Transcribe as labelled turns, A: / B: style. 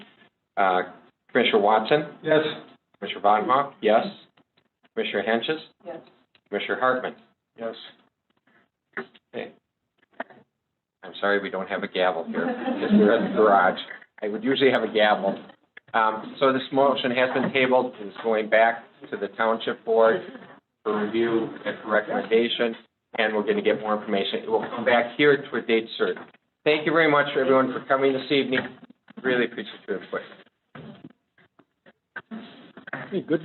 A: Uh, Commissioner Watson?
B: Yes.
A: Commissioner Von Hoff? Yes. Commissioner Henches?
C: Yes.
A: Commissioner Hartman?
B: Yes.
A: I'm sorry, we don't have a gavel here, because we're at the garage. I would usually have a gavel. Um, so this motion has been tabled, and it's going back to the township board for review and for recommendation, and we're gonna get more information. It will come back here to a date certain. Thank you very much, everyone, for coming this evening. Really appreciate your input.
B: Good